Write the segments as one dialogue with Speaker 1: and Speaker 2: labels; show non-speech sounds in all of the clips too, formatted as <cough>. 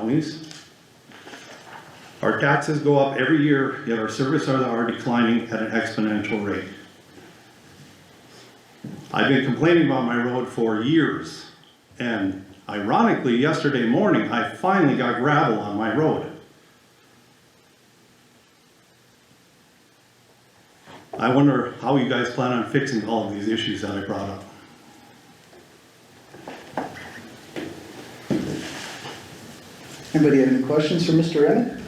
Speaker 1: counties. Our taxes go up every year, yet our services are declining at an exponential rate. I've been complaining about my road for years, and ironically, yesterday morning, I finally got gravel on my road. I wonder how you guys plan on fixing all of these issues that I brought up.
Speaker 2: Anybody have any questions for Mr. Reddick?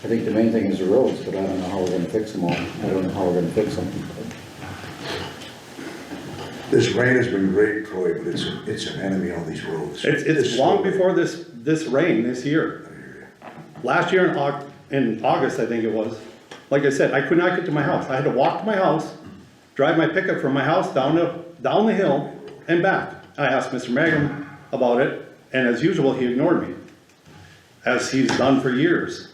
Speaker 3: I think the main thing is the roads, but I don't know how we're gonna fix them all. I don't know how we're gonna fix them.
Speaker 4: This rain has been great, Troy, but it's, it's an enemy on these roads.
Speaker 1: It's, it's long before this, this rain this year. Last year in Au, in August, I think it was, like I said, I could not get to my house. I had to walk to my house, drive my pickup from my house down the, down the hill and back. I asked Mr. Magrum about it, and as usual, he ignored me, as he's done for years.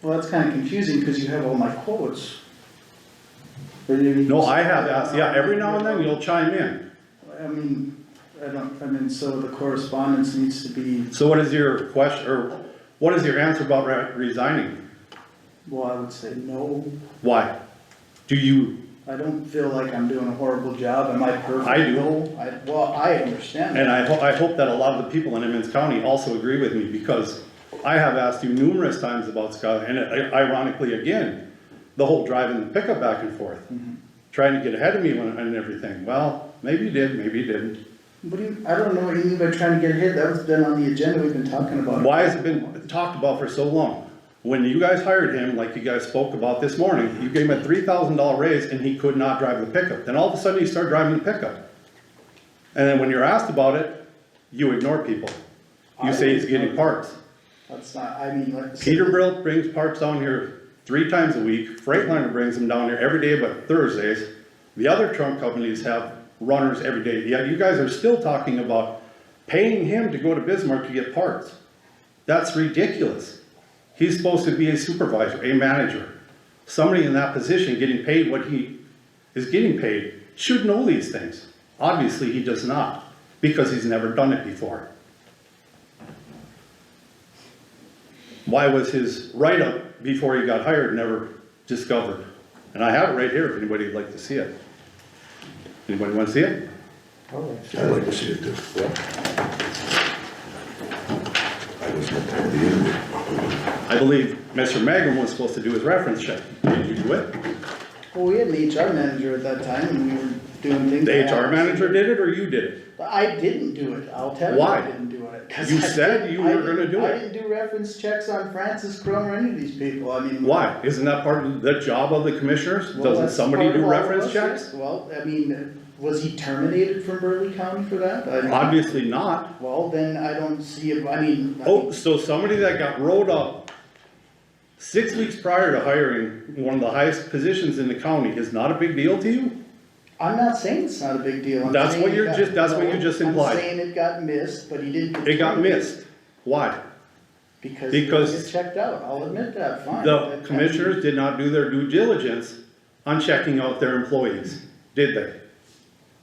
Speaker 2: Well, that's kind of confusing because you have all my quotes. But you-
Speaker 1: No, I have asked, yeah, every now and then you'll chime in.
Speaker 2: I mean, I don't, I mean, so the correspondence needs to be,
Speaker 1: So what is your question, or what is your answer about re- resigning?
Speaker 2: well, I would say no.
Speaker 1: Why? Do you
Speaker 2: I don't feel like I'm doing a horrible job. Am I perfect?
Speaker 1: I do.
Speaker 2: No, I, well, I understand
Speaker 1: And
Speaker 2: that.
Speaker 1: I ho- I hope that a lot of the people in Emmons County also agree with me, because I have asked you numerous times about Scott, and ironically, again, the whole driving the pickup back and forth, trying to get ahead of me when- and everything, well, maybe you did, maybe you didn't.
Speaker 2: What do you, I don't know what you mean by trying to get ahead. That's been on the agenda. We've been talking about. it.
Speaker 1: Why has it been talked about for so long? When you guys hired him, like you guys spoke about this morning, you gave him a three thousand dollar raise and he could not drive the pickup, then all of a sudden he started driving the pickup. And then when you're asked about it, you ignore people, you say he's getting parts.
Speaker 2: That's not, I mean, like. I said,
Speaker 1: Peterbilt brings parts down here three times a week, Freightliner brings them down here every day but Thursdays. The other trunk companies have runners every day, yet you guys are still talking about paying him to go to Bismarck to get parts. That's ridiculous. He's supposed to be a supervisor, a manager, somebody in that position getting paid what he is getting paid should know these things. Obviously, he does not, because he's never done it before. why was his write-up before he got hired never discovered? And I have it right here if anybody would like to see it. Anybody want to see it?
Speaker 2: oh,
Speaker 4: I'd like to see it too. I was not there the end
Speaker 1: I believe Mr. Magrum was supposed to do his reference check. Did you do it?
Speaker 2: Well, we had an HR manager at that time and we were doing things.
Speaker 1: The HR manager did it or you did it?
Speaker 2: But I didn't do it, I'll tell you
Speaker 1: Why?
Speaker 2: I didn't do it. 'cause
Speaker 1: You
Speaker 2: <laughs> I
Speaker 1: said
Speaker 2: didn't-
Speaker 1: you
Speaker 2: I
Speaker 1: were gonna
Speaker 2: didn't-
Speaker 1: do
Speaker 2: I
Speaker 1: it.
Speaker 2: didn't do reference checks on Francis Crum or any of these people, I mean.
Speaker 1: Why? Isn't that part of the job of the commissioners?
Speaker 2: well,
Speaker 1: Doesn't
Speaker 2: that's
Speaker 1: somebody
Speaker 2: part
Speaker 1: do
Speaker 2: of all of
Speaker 1: reference
Speaker 2: us,
Speaker 1: checks?
Speaker 2: right? Well, I mean, was he terminated from Burley County for that? I mean,
Speaker 1: Obviously not.
Speaker 2: Well, then I don't see, if- I mean. I
Speaker 1: Oh,
Speaker 2: mean,
Speaker 1: so somebody that got rolled up six weeks prior to hiring one of the highest positions in the county is not a big deal to you?
Speaker 2: I'm not saying it's not a big deal. I'm
Speaker 1: That's
Speaker 2: saying
Speaker 1: what
Speaker 2: it
Speaker 1: you're
Speaker 2: got-
Speaker 1: just- that's what you
Speaker 2: no,
Speaker 1: just
Speaker 2: I'm
Speaker 1: implied.
Speaker 2: saying it got missed, but he didn't.
Speaker 1: It got missed. Why?
Speaker 2: Because he
Speaker 1: because-
Speaker 2: was checked out, I'll admit that, fine. That- I
Speaker 1: The
Speaker 2: mean,
Speaker 1: commissioners did not do their due diligence on checking out their employees, did they?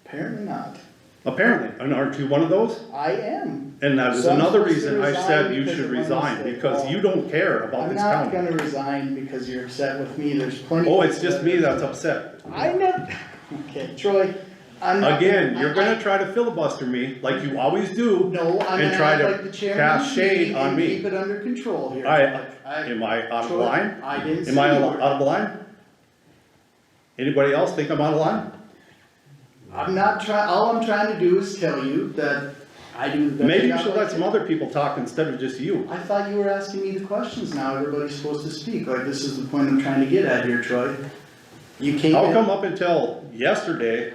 Speaker 2: Apparently not,
Speaker 1: Apparently, and aren't you one of those?
Speaker 2: I am.
Speaker 1: And that is
Speaker 2: So I'm
Speaker 1: another
Speaker 2: supposed to
Speaker 1: reason I
Speaker 2: resign
Speaker 1: said you
Speaker 2: because
Speaker 1: should
Speaker 2: of my
Speaker 1: resign,
Speaker 2: mistake.
Speaker 1: because
Speaker 2: Oh.
Speaker 1: you don't care about
Speaker 2: I'm
Speaker 1: this
Speaker 2: not
Speaker 1: county.
Speaker 2: gonna resign because you're upset with me, there's plenty.
Speaker 1: Oh, it's just me that's upset.
Speaker 2: I know, <laughs> okay, Troy, I'm not.
Speaker 1: Again,
Speaker 2: I-
Speaker 1: you're gonna try to filibuster me like you always do.
Speaker 2: No, I'm
Speaker 1: and
Speaker 2: gonna
Speaker 1: try
Speaker 2: act
Speaker 1: to
Speaker 2: like the chairman.
Speaker 1: cast
Speaker 2: of the
Speaker 1: shade
Speaker 2: meeting
Speaker 1: on
Speaker 2: and
Speaker 1: me.
Speaker 2: Keep it under control here.
Speaker 1: I,
Speaker 2: I-
Speaker 1: am I out of
Speaker 2: Troy,
Speaker 1: line?
Speaker 2: I didn't say
Speaker 1: Am I
Speaker 2: you
Speaker 1: out
Speaker 2: were.
Speaker 1: of line? Anybody else think I'm out of line?
Speaker 2: I'm not try, all I'm trying to do is tell you that I do the best.
Speaker 1: Maybe you
Speaker 2: job
Speaker 1: should
Speaker 2: I
Speaker 1: let some
Speaker 2: can.
Speaker 1: other people talk instead of just you.
Speaker 2: I thought you were asking me the questions now, everybody's supposed to speak, like this is the point I'm trying to get at here, Troy. You came
Speaker 1: How come
Speaker 2: in,
Speaker 1: up until yesterday,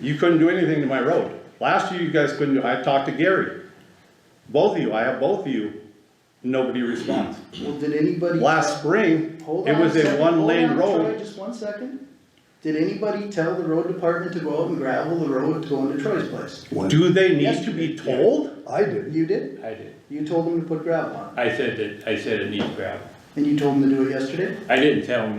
Speaker 1: you couldn't do anything to my road? Last year, you guys couldn't do, I talked to Gary. Both of you, I have both of you, nobody responds.
Speaker 2: well, did anybody?
Speaker 1: Last spring,
Speaker 2: Hold
Speaker 1: it
Speaker 2: on
Speaker 1: was a
Speaker 2: second, hold
Speaker 1: one-lane
Speaker 2: on, Troy,
Speaker 1: road.
Speaker 2: Just one second, did anybody tell the road department to go out and gravel the road to go into Troy's place?
Speaker 4: of
Speaker 1: Do they need to be told?
Speaker 4: I did.
Speaker 2: You did,
Speaker 5: I did.
Speaker 2: you told them to put gravel on,
Speaker 5: I said that, I said it needs gravel.
Speaker 6: And you told them to do it yesterday?
Speaker 2: I didn't tell him